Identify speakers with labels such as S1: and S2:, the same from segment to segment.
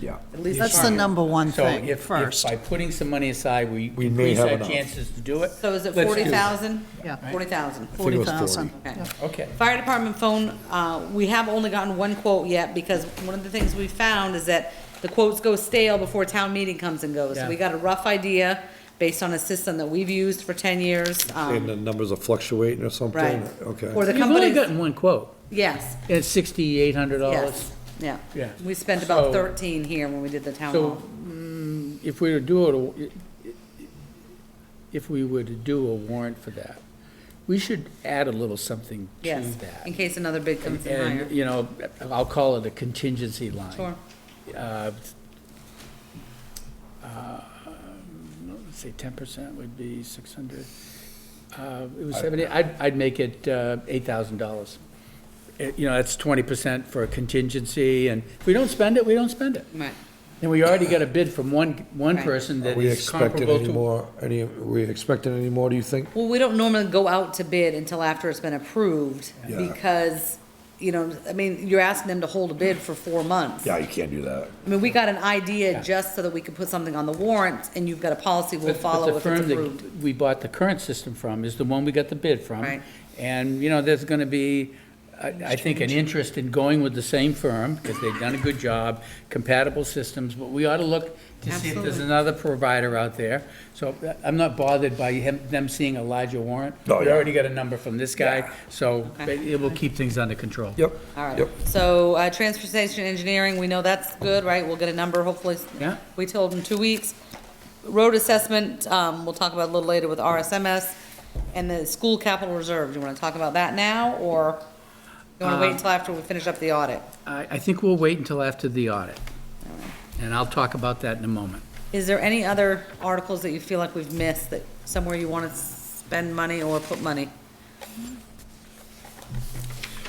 S1: Yeah.
S2: At least
S3: That's the
S2: part.
S3: number one
S4: So
S3: thing
S4: if, if
S3: first.
S4: by putting some money aside, we
S1: We may
S4: increase
S1: have
S4: our
S1: enough.
S4: chances to do it.
S2: So is it
S4: let's do
S2: forty thousand?
S3: Yeah.
S2: Forty thousand,
S1: I think it was
S3: 40,000.
S2: okay.
S4: Okay.
S2: Fire department phone, uh, we have only gotten one quote yet, because one of the things we found is that the quotes go stale before town meeting comes and goes. So we
S4: Yeah.
S2: got a rough idea based on a system that we've used for ten years,
S1: And
S2: um,
S1: the numbers are fluctuating or something?
S2: right?
S1: Okay.
S2: Or the
S4: You've only
S2: company,
S4: gotten one quote,
S2: yes,
S4: and it's sixty-eight hundred dollars.
S2: yes, yeah.
S4: Yeah.
S2: We spent about
S4: So-
S2: thirteen here when we did the town
S4: So,
S2: hall.
S4: mm, if we were to do it, if we were to do a warrant for that, we should add a little something to
S2: Yes,
S4: that.
S2: in case another bid comes in higher.
S4: And, you know, I'll call it a contingency line.
S2: Sure,
S4: Uh, uh, Say ten percent would be six hundred. Uh, It was seventy, I'd, I'd make it uh, eight thousand dollars. Eh, You know, that's twenty percent for a contingency, and if we don't spend it, we don't spend it.
S2: right.
S4: And we already got a bid from one, one
S2: Right.
S4: person
S1: Are
S4: that
S1: we
S4: is
S1: expecting
S4: comparable
S1: any
S4: to.
S1: more, any, are we expecting any more, do you think?
S2: Well, we don't normally go out to bid until after it's been approved,
S1: Yeah.
S2: because, you know, I mean, you're asking them to hold a bid for four months.
S1: you can't do that.
S2: I mean, we got an idea just so that we could put something on the warrant, and you've got a policy we'll
S4: But- but the
S2: follow if it's
S4: firm that
S2: approved.
S4: We bought the current system from is the one we got the bid from.
S2: Right.
S4: And, you know, there's gonna be, I, I think, an interest in going with the same firm, because they've done a good job, compatible systems, but we ought to look to see if there's
S2: Absolutely.
S4: another provider out there. So uh, I'm not bothered by him, them seeing a larger warrant.
S1: Oh,
S4: We
S1: yeah.
S4: already got a number from this guy, so
S2: Okay.
S4: it it will keep things under control.
S1: Yep.
S2: All right,
S1: Yep.
S2: so, uh, transfer station engineering, we know that's good, right? We'll get a number hopefully.
S4: Yeah.
S2: We told them two weeks. Road assessment, um, we'll talk about a little later with RSMS. And the school capital reserve, do you wanna talk about that now, or you wanna wait
S4: Um,
S2: until after we finish up the audit?
S4: I, I think we'll wait until after the audit. And I'll talk about that in a moment.
S2: Is there any other articles that you feel like we've missed, that somewhere you wanna spend money or put money?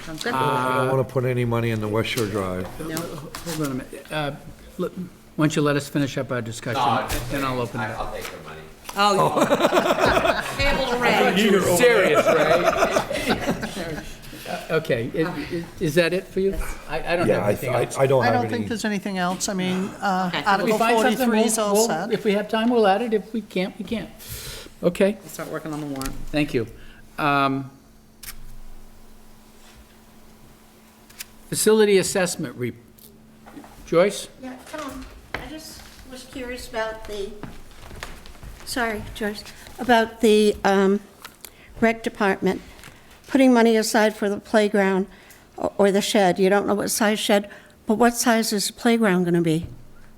S2: Sounds good.
S1: I
S4: Uh,
S1: don't want to put any money in the West Shore Drive.
S4: Hold on a minute. Uh, let- Why don't you let us finish up our discussion, and I'll open it up.
S5: I'll take her money.
S2: Oh. Table to Ray.
S4: You're serious, right? Okay, i- i- is that it for you? I I don't
S1: Yeah,
S4: have
S1: I,
S4: anything
S1: I
S4: else.
S1: I don't
S3: I
S1: have
S3: don't think
S1: any.
S3: there's anything else. I mean, uh,
S2: Okay.
S4: If we
S3: Article
S4: find something,
S3: 43 is
S4: we'll-
S3: all
S4: we'll-
S3: set.
S4: If we have time, we'll add it. If we can't, we can't. Okay,
S2: Start working on the warrant.
S4: thank you. Um, Facility assessment, re- Joyce?
S6: Yeah, Tom, I just was curious about the, sorry, George, about the um, rec department, putting money aside for the playground o- or the shed. You don't know what size shed, but what size is the playground going to be?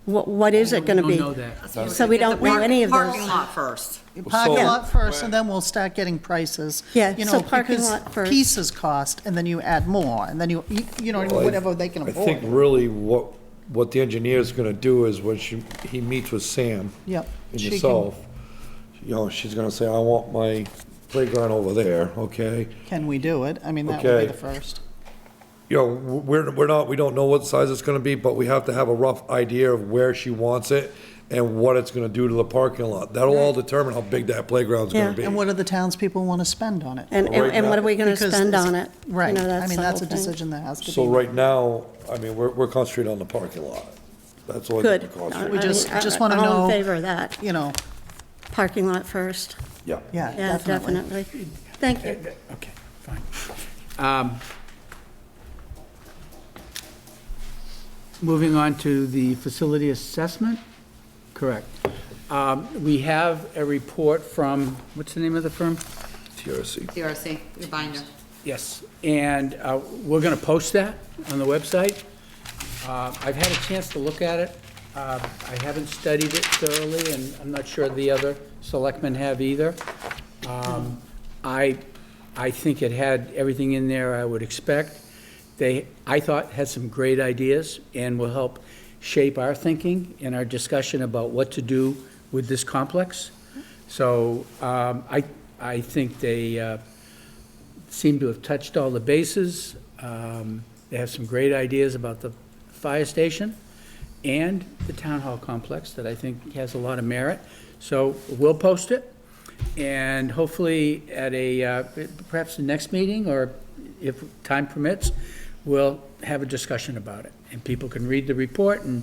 S6: What What is
S3: Oh,
S6: it going to
S4: We
S6: be?
S4: don't know that.
S6: So we don't know any of
S2: Parking
S6: those.
S2: lot first.
S3: Parking
S1: So-
S3: lot first, and then we'll start getting prices.
S6: Yeah,
S3: you
S6: so
S3: know,
S6: parking
S3: because
S6: lot first.
S3: Pieces cost, and then you add more, and then you, you- you know, whatever they can
S1: I think
S3: afford.
S1: really what, what the engineer's gonna do is when she, he meets with Sam.
S3: Yep.
S1: And
S3: She can-
S1: yourself, you know, she's gonna say, I want my playground over there, okay?
S3: Can we do it? I mean, that would be
S1: Okay.
S3: the first.
S1: You know, we're, we're not, we don't know what size it's gonna be, but we have to have a rough idea of where she wants it and what it's gonna do to the parking lot. That'll all determine how big that playground's gonna
S6: Yeah.
S1: be.
S3: And what do the townspeople want to spend on it?
S6: And and- and what are we going to
S3: Because
S6: spend
S3: it's-
S6: on it? You
S3: Right,
S6: know,
S3: I mean,
S6: the
S3: that's a
S6: whole thing.
S3: decision that has to be.
S1: So right now, I mean, we're, we're concentrating on the parking lot. That's all we're
S6: Good.
S1: concentrating.
S3: We
S6: I
S3: just-
S6: mean, I-
S3: just wanna
S6: All
S3: know-
S6: in favor of that,
S3: You know,
S6: parking lot first.
S1: Yeah.
S3: yeah,
S6: Yeah,
S3: definitely.
S6: definitely. Thank you.
S4: Okay, fine. Um, Moving on to the facility assessment, correct. Um, We have a report from, what's the name of the firm?
S1: TRC.
S2: CRC, the binder.
S4: Yes. And uh, we're going to post that on the website. Uh, I've had a chance to look at it. Uh, I haven't studied it thoroughly, and I'm not sure the other selectmen have either. Um, I, I think it had everything in there I would expect. They, I thought, had some great ideas and will help shape our thinking and our discussion about what to do with this complex. So um, I, I think they, uh, seem to have touched all the bases. Um, They have some great ideas about the fire station and the town hall complex that I think has a lot of merit. So we'll post it, and hopefully at a, uh, perhaps the next meeting, or if time permits, we'll have a discussion about it. And people can read the report and